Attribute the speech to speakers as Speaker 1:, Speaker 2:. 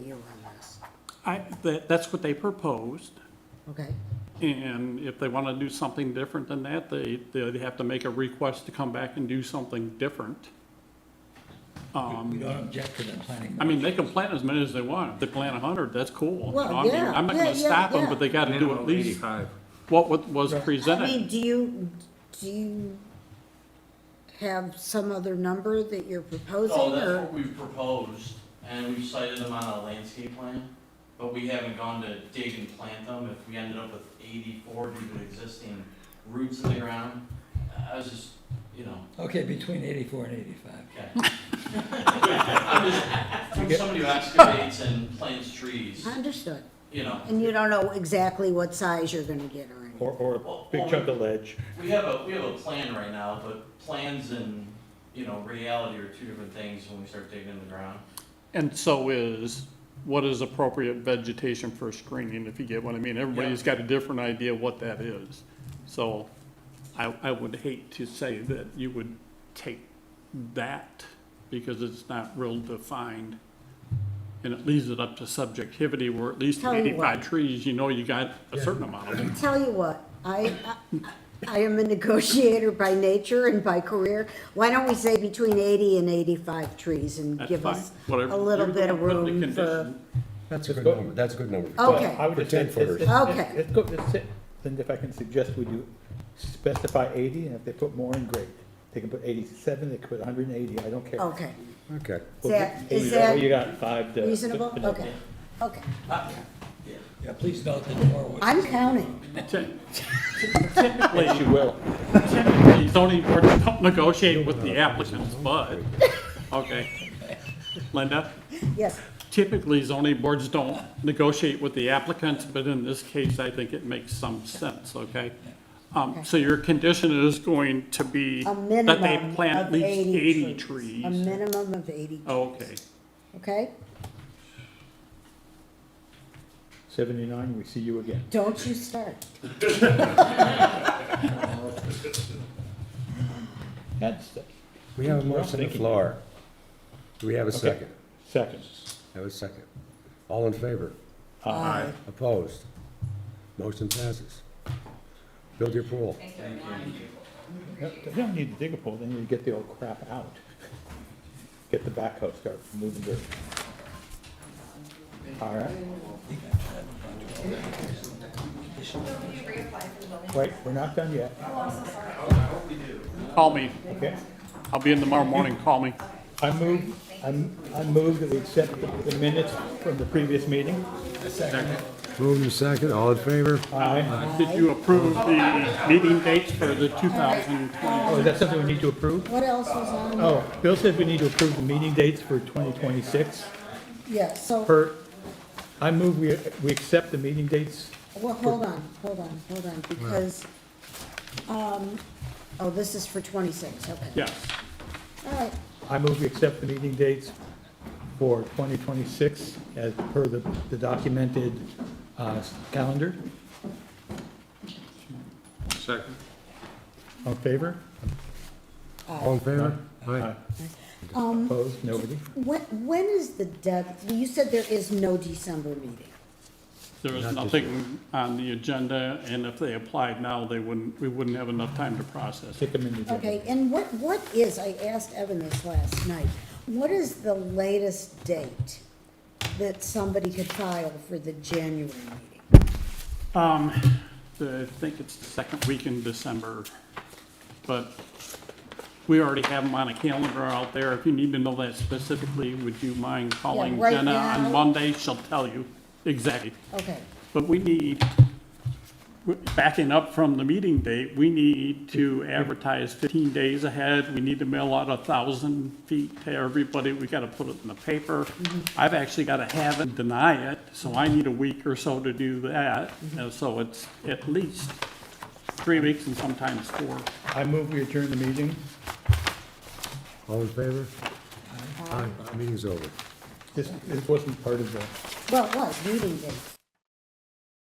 Speaker 1: year on this,
Speaker 2: I, that, that's what they proposed,
Speaker 1: okay?
Speaker 2: and if they want to do something different than that, they, they'd have to make a request to come back and do something different.
Speaker 3: We don't object to them planning.
Speaker 2: Um, I mean, they can plant as many as they want. If they plant a hundred, that's cool. you
Speaker 1: Well,
Speaker 2: know, I mean,
Speaker 1: yeah,
Speaker 2: I'm not
Speaker 1: yeah,
Speaker 2: gonna
Speaker 1: yeah,
Speaker 2: stop them,
Speaker 1: yeah.
Speaker 2: but they gotta do
Speaker 4: Minimum
Speaker 2: at
Speaker 4: of
Speaker 2: least
Speaker 4: Eighty-five.
Speaker 2: what wa- was
Speaker 1: I mean,
Speaker 2: presented.
Speaker 1: do you, do you have some other number that you're proposing,
Speaker 5: Oh,
Speaker 6: No, Oh, that's what
Speaker 1: or?
Speaker 6: we've proposed, and we've cited them on a landscape plan, but we haven't gone to dig and plant them. If we ended up with eighty-four due to existing roots in the ground, I was just, you know,
Speaker 3: Okay, between eighty-four and eighty-five.
Speaker 6: okay. I'm just, from somebody who excavates and plants trees,
Speaker 1: Understood,
Speaker 6: you know.
Speaker 1: and you don't know exactly what size you're gonna get or anything.
Speaker 5: Or, or
Speaker 6: Well,
Speaker 5: a big
Speaker 6: well,
Speaker 5: chunk of ledge.
Speaker 6: We have a, we have a plan right now, but plans and, you know, reality are two different things when we start digging in the ground.
Speaker 2: And so is, what is appropriate vegetation for screening, if you get what I mean? Everybody's got a different idea what that is. So I, I would hate to say that you would take that because it's not real defined. And it leaves it up to subjectivity where at least
Speaker 1: Tell you
Speaker 2: eighty-five
Speaker 1: what.
Speaker 2: trees, you know, you got a certain amount of them.
Speaker 1: Tell you what, I, I- I am a negotiator by nature and by career. Why don't we say between eighty and eighty-five trees and
Speaker 2: That's
Speaker 1: give
Speaker 2: fine.
Speaker 1: us a
Speaker 2: Whatever.
Speaker 1: little
Speaker 2: You're
Speaker 1: bit of
Speaker 2: the one putting the
Speaker 1: room for,
Speaker 2: condition.
Speaker 7: That's a good number, that's a good number.
Speaker 1: Oh. Okay.
Speaker 5: Well, I would
Speaker 7: For
Speaker 5: just say-
Speaker 7: 10-footers.
Speaker 5: it's- it's-
Speaker 1: Okay.
Speaker 5: It's, go- it's, it. then if I can suggest we do specify eighty, and if they put more in, great. They can put eighty-seven, they could put hundred and eighty, I don't care.
Speaker 1: okay.
Speaker 7: Okay.
Speaker 1: Is that,
Speaker 5: Well,
Speaker 1: is
Speaker 5: you got-
Speaker 1: that
Speaker 5: You got five to.
Speaker 1: reasonable?
Speaker 5: you know,
Speaker 1: Okay, okay.
Speaker 2: Uh,
Speaker 3: Yeah, please note that Norwood.
Speaker 1: I'm counting.
Speaker 2: Ty- Typically,
Speaker 5: Yes, you will.
Speaker 2: Typically, zoning boards don't negotiate with the applicants, but, okay. Linda,
Speaker 1: Yes,
Speaker 2: typically zoning boards don't negotiate with the applicants, but in this case, I think it makes some sense, okay? Um, so your condition is going to be
Speaker 1: a
Speaker 2: that they
Speaker 1: minimum
Speaker 2: plant at
Speaker 1: of
Speaker 2: least eighty
Speaker 1: eighty trees. A
Speaker 2: trees. Oh.
Speaker 1: minimum of eighty,
Speaker 2: Okay,
Speaker 1: okay?
Speaker 5: Seventy-nine, we see you again.
Speaker 1: Don't you start.
Speaker 5: That's it.
Speaker 7: We have a motion on the
Speaker 5: Thinking.
Speaker 7: floor. Do we have a second?
Speaker 5: Second.
Speaker 7: Have a second. All in favor?
Speaker 1: Aye.
Speaker 7: Opposed? Motion passes. Build your pool.
Speaker 5: No, They don't need to dig a pole, they need to get the old crap out. Get the backhoe, start moving dirt. All right. Wait, we're not done yet,
Speaker 2: call me.
Speaker 5: okay?
Speaker 2: I'll be in tomorrow morning, call me.
Speaker 5: I move, I'm- I move that we accept the- the minutes from the previous meeting.
Speaker 7: Move and second, all in favor?
Speaker 5: Aye.
Speaker 2: Did you approve the meeting dates for the two thousand twenty?
Speaker 5: Oh, is that something we need to approve?
Speaker 1: What else was on?
Speaker 5: Oh, Bill says we need to approve the meeting dates for 2026
Speaker 1: Yeah, so.
Speaker 5: per, I move we, we accept the meeting dates.
Speaker 1: Well, hold on, hold on, hold on, because, um, oh, this is for twenty-six, okay.
Speaker 2: Yes.
Speaker 1: All right,
Speaker 5: I move we accept the meeting dates for 2026 as per the the documented uh, calendar.
Speaker 4: Second.
Speaker 5: All in favor?
Speaker 7: All in favor? Aye.
Speaker 5: Opposed? Nobody?
Speaker 1: when, when is the dead, you said there is no December meeting.
Speaker 2: There is nothing on the agenda, and if they applied now, they wouldn't, we wouldn't have enough time to process it.
Speaker 5: Kick them in the door.
Speaker 1: Okay, and what, what is, I asked Evan this last night, what is the latest date that somebody could file for the January meeting?
Speaker 2: Um, the- I think it's the second week in December, but we already have them on a calendar out there. If you need to know that specifically, would you mind calling
Speaker 1: right
Speaker 2: Jenna
Speaker 1: now.
Speaker 2: on Monday? She'll tell you exactly.
Speaker 1: Okay,
Speaker 2: But we need, backing up from the meeting date, we need to advertise 15 days ahead. We need to mail out a 1,000 feet to everybody. We got to put it in the paper. I've actually got to have it, deny it, so I need a week or so to do that. And so it's at least three weeks and sometimes four.
Speaker 5: I move we adjourn the meeting.
Speaker 7: All in favor? Aye. Meeting's over.
Speaker 5: This, this wasn't part of the.
Speaker 1: well, what, meeting date?